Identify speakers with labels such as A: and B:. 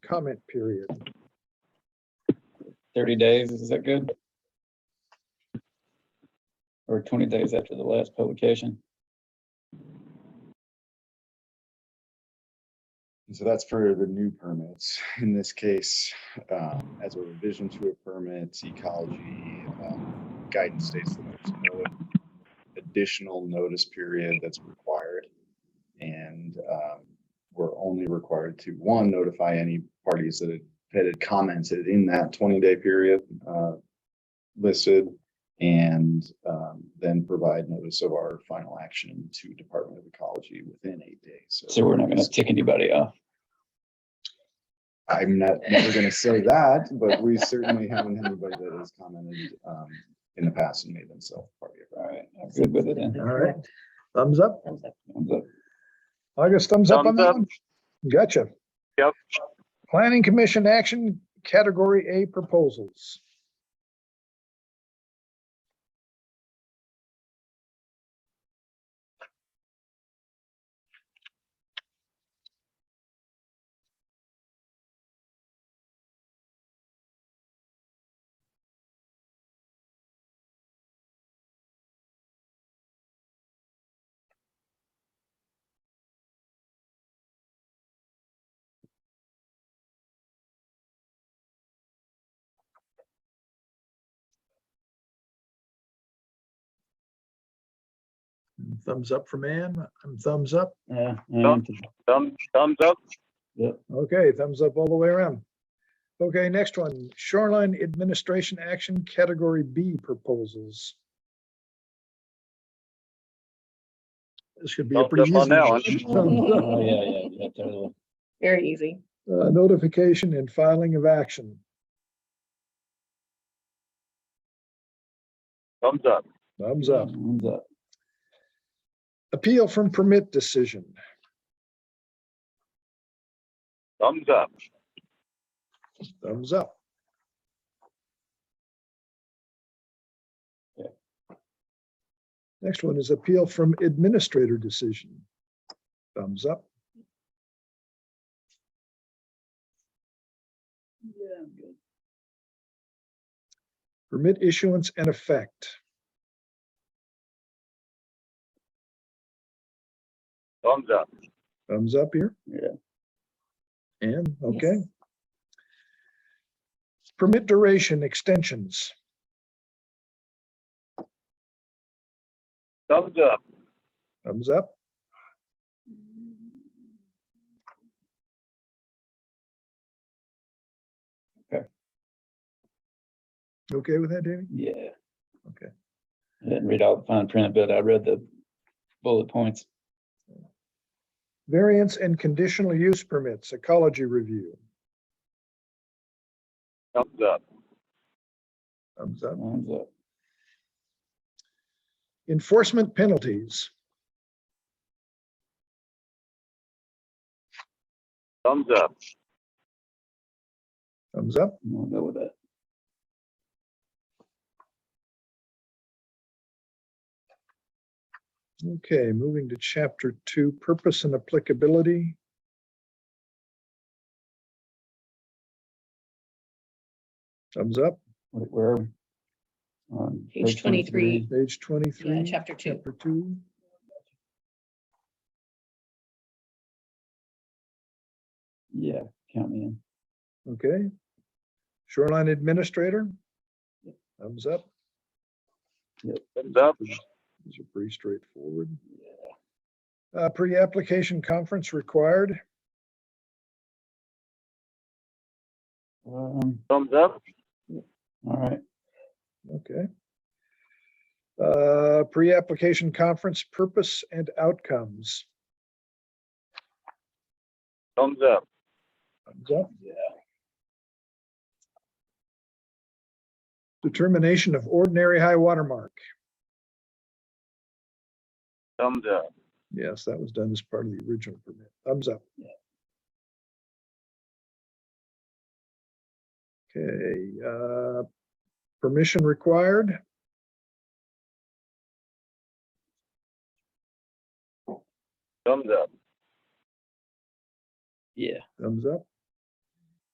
A: comment period.
B: thirty days, is that good? Or twenty days after the last publication?
C: And So that's for the new permits. In this case, um, as a revision to a permit, ecology um, guidance states that there's no additional notice period that's required. And um, we're only required to, one, notify any parties that had- that had commented in that 20-day period uh, listed, and um, then provide notice of our final action to Department of Ecology within eight days.
B: So we're not gonna tick anybody off.
C: I'm not never gonna say that, but we certainly haven't had anybody that has commented um in the past and made themselves part of it.
B: All right, I'm good with it then.
A: All right. Thumbs up.
D: Thumbs up.
B: Thumbs up.
A: August, thumbs up on
E: Thumbs
A: that
E: up.
A: one? Gotcha.
E: Yep.
A: Planning Commission action, category A proposals. Thumbs up for man, I'm thumbs up.
B: Yeah.
E: Thumbs- Thumbs, thumbs up.
A: Okay, thumbs up all the way around. Okay, next one, shoreline administration action, category B proposals. This should be a
E: Thumbs
A: pretty
E: up on that one.
A: easy. Thumbs up.
B: Oh, yeah, yeah, yeah, totally.
D: Very easy.
A: Uh, Notification and filing of action.
E: Thumbs up.
A: Thumbs up.
B: Thumbs up.
A: Appeal from permit decision.
E: Thumbs up.
A: Thumbs up.
B: Yeah.
A: Next one is appeal from administrator decision. Thumbs up.
B: Yeah, I'm good.
A: Permit issuance and effect.
E: Thumbs up.
A: Thumbs up here.
B: Yeah.
A: And, okay. Permit duration extensions.
E: Thumbs up.
A: Thumbs up.
B: Okay.
A: You Okay with that, Davey?
B: Yeah.
A: Okay.
B: I didn't read all the fine print, but I read the bullet points.
A: Variance and conditional use permits, ecology review.
E: Thumbs up.
A: Thumbs up.
B: Thumbs up.
A: Enforcement penalties.
E: Thumbs up.
A: Thumbs up.
B: I'm gonna go with that.
A: Okay, moving to chapter two, purpose and applicability. Thumbs up,
B: Where- Where? are we? On
D: Page
B: page
D: 23.
A: page twenty-three.
D: Yeah, chapter two.
A: Chapter two.
B: Yeah, count me in.
A: Okay. Shoreline Administrator? Thumbs up.
E: Thumbs up.
A: These are pretty straightforward. Uh, pre-application conference required.
B: Um,
E: Thumbs up.
B: all right,
A: Okay. Uh, pre-application conference purpose and outcomes.
E: Thumbs up.
A: Thumbs up.
B: yeah.
A: Determination of ordinary high water mark.
E: Thumbs up.
A: Yes, that was done as part of the original permit. Thumbs up. Okay, uh, permission required.
E: Thumbs up.
B: Yeah,
A: Thumbs up.